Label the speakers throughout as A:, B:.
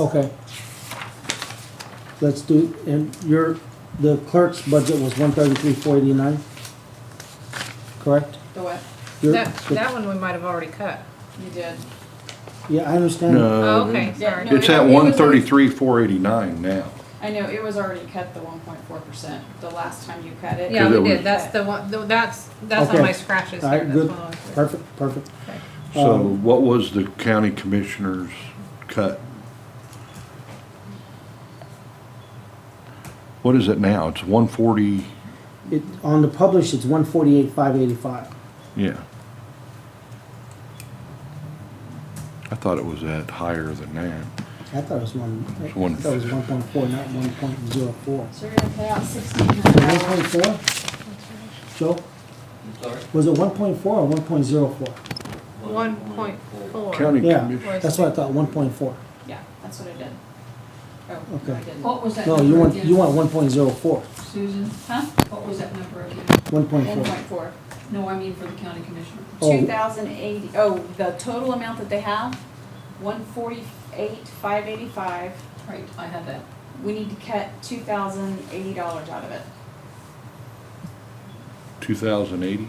A: Okay. Let's do, and your, the clerk's budget was one thirty-three, four eighty-nine? Correct?
B: The what?
A: Your-
C: That, that one we might have already cut.
B: You did.
A: Yeah, I understand.
C: Oh,
D: No.
C: okay,
B: Yeah,
C: sorry.
B: no,
D: It's at
B: it- it was
D: one
B: like-
D: thirty-three, four eighty-nine now.
B: I know, it was already cut the one point four percent the last time you cut it.
C: Yeah,
D: 'Cause it
C: we
D: was-
C: did, that's the one, th- that's, that's
A: Okay.
C: on my scratches
A: All
C: there,
A: right,
C: that's
A: good,
C: one of them.
A: perfect, perfect.
C: Okay. Oh.
D: So
A: Um,
D: what was the county commissioner's cut? What is it now? It's one forty,
A: It, on the publish, it's one forty-eight, five eighty-five.
D: yeah. I thought it was at higher than that.
A: I thought it was one, I
D: It's one-
A: thought it was one point four, not one point zero four.
B: So you're gonna pay out sixteen
A: One
B: hundred
A: point
B: dollars.
A: four? Joe,
E: I'm sorry?
A: was it one point four or one point zero four?
C: One point four.
D: County
A: Yeah,
D: commission,
A: that's what I thought, one point four.
B: Yeah, that's what I did. Oh,
A: Okay.
B: no, I didn't.
F: What was that
A: No, you
F: number
A: want, you
F: again,
A: want one point zero four.
F: Susan?
B: Huh?
F: What was that number again?
A: One point
B: One
A: four.
B: point four.
F: No, I mean for the county commissioner.
A: Oh.
B: Two thousand eighty, oh, the total amount that they have, one forty-eight, five eighty-five.
F: Right, I had that.
B: We need to cut two thousand eighty dollars out of it.
D: two thousand eighty?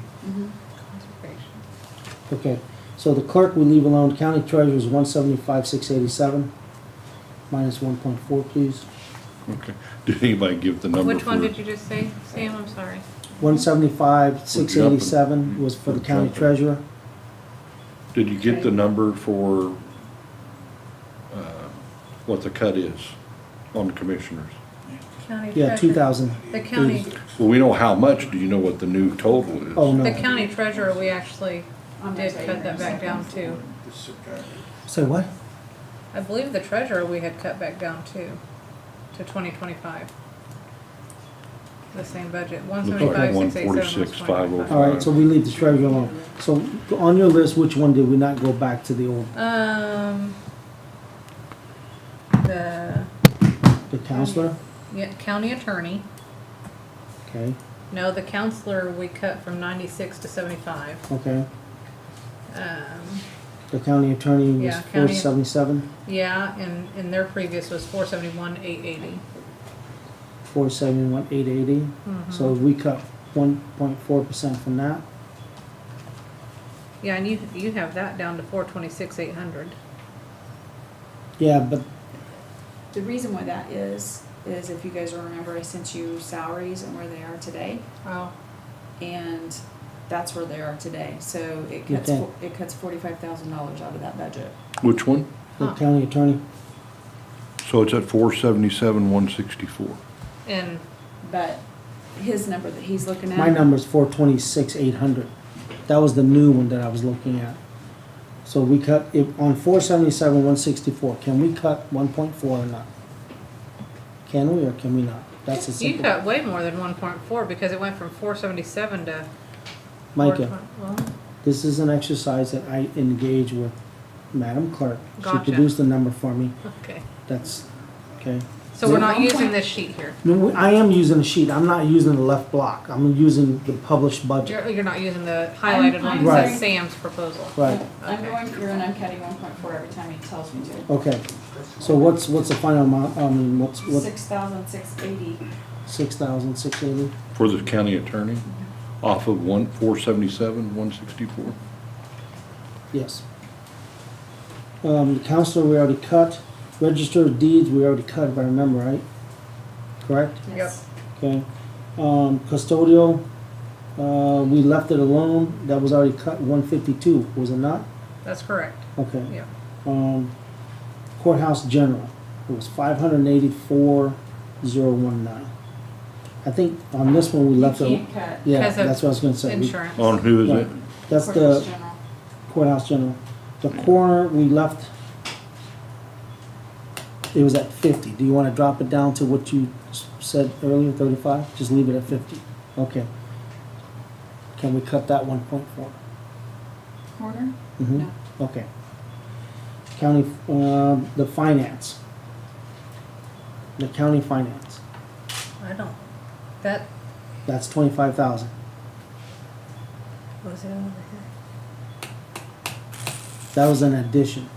A: Okay, so the clerk we leave alone, county treasurer is one seventy-five, six eighty-seven, minus one point four, please.
D: Okay. Did anybody give the number
C: Which
D: for?
C: one did you just say, Sam, I'm sorry?
A: One seventy-five, six eighty-seven was for the county treasurer.
D: Did you get the number for, uh, what the cut is on the commissioners?
C: County
A: Yeah,
C: treasurer.
A: two thousand.
C: The county,
D: Well, we know how much, do you know what the new total is?
A: Oh,
C: the
A: no,
C: county treasurer, we actually
B: I'm gonna
C: did
B: tell you
C: cut
B: here in
C: that
B: a
C: back
B: second.
C: down too.
A: say what?
C: I believe the treasurer we had cut back down too, to twenty twenty-five. The same budget, one
D: like
C: seventy-five, six eight seven,
D: 146, 505.
A: All right, so we leave the treasurer alone. So on your list, which one did we not go back to the old,
C: Um, the
A: the counselor?
C: yeah, county attorney,
A: Okay,
C: no, the counselor we cut from ninety-six to seventy-five.
A: okay.
C: Um,
A: The county attorney was
C: Yeah,
A: four
C: county-
A: seventy-seven,
C: yeah, and, and their previous was four seventy-one, eight eighty.
A: four seventy-one, eight eighty.
C: Mm-hmm.
A: So we cut one point four percent from that.
C: Yeah, and you, you have that down to four twenty-six, eight hundred.
A: Yeah, but
B: The reason why that is, is if you guys remember, I sent you salaries and where they are today,
C: Oh,
B: and that's where they are today. So it cuts,
A: Okay.
B: fo- it cuts forty-five thousand dollars out of that budget.
D: Which one?
A: the
C: Huh.
A: county attorney,
D: So it's at four seventy-seven, one sixty-four.
C: and
B: But his number that he's looking at.
A: My number's four twenty-six, eight hundred. That was the new one that I was looking at. So we cut, if, on four seventy-seven, one sixty-four, can we cut one point four or not? Can we or can we not? That's a
C: you
A: simple,
C: cut way more than one point four because it went from four seventy-seven to.
A: Micah,
C: 420 well,
A: this is an exercise that I engage with Madam Clerk. She
C: Gotcha.
A: produced the number for me,
C: Okay,
A: that's, okay.
C: so we're not
B: One
C: using
B: point-
C: this sheet here.
A: No, we- I am using a sheet, I'm not using the left block, I'm using the published budget.
C: You're, you're not using the highlighted one,
B: I'm
A: Right.
C: that's
B: sorry.
C: Sam's proposal.
A: Right,
B: I'm going through and I'm cutting one point four every time he tells me to.
A: okay. So what's, what's the final amount, I mean, what's, what,
B: Six thousand six eighty.
A: six thousand, six eighty?
D: For the county attorney, off of one, four seventy-seven, one sixty-four?
A: Yes. Um, the counselor, we already cut. Register of deeds, we already cut, if I remember right. Correct?
B: Yes.
A: Okay. Um, custodial, uh, we left it alone. That was already cut, one fifty-two, was it not?
C: That's correct,
A: Okay.
C: yeah.
A: Um, courthouse general, it was five hundred and eighty-four, zero one nine. I think on this one, we left
B: You
A: it,
B: can't cut
A: yeah,
C: Because of
A: that's what I was gonna say. We-
C: Insurance.
D: On who is it?
A: That's
B: courthouse
A: the
B: general.
A: courthouse general. The corner, we left, it was at fifty. Do you wanna drop it down to what you s- said earlier, thirty-five? Just leave it at fifty? Okay. Can we cut that one point four?
B: Corner?
A: Mm-hmm, okay. County, um, the finance. The county finance,
C: I don't, that
A: that's twenty-five thousand.
C: was it over here?
A: That was an addition.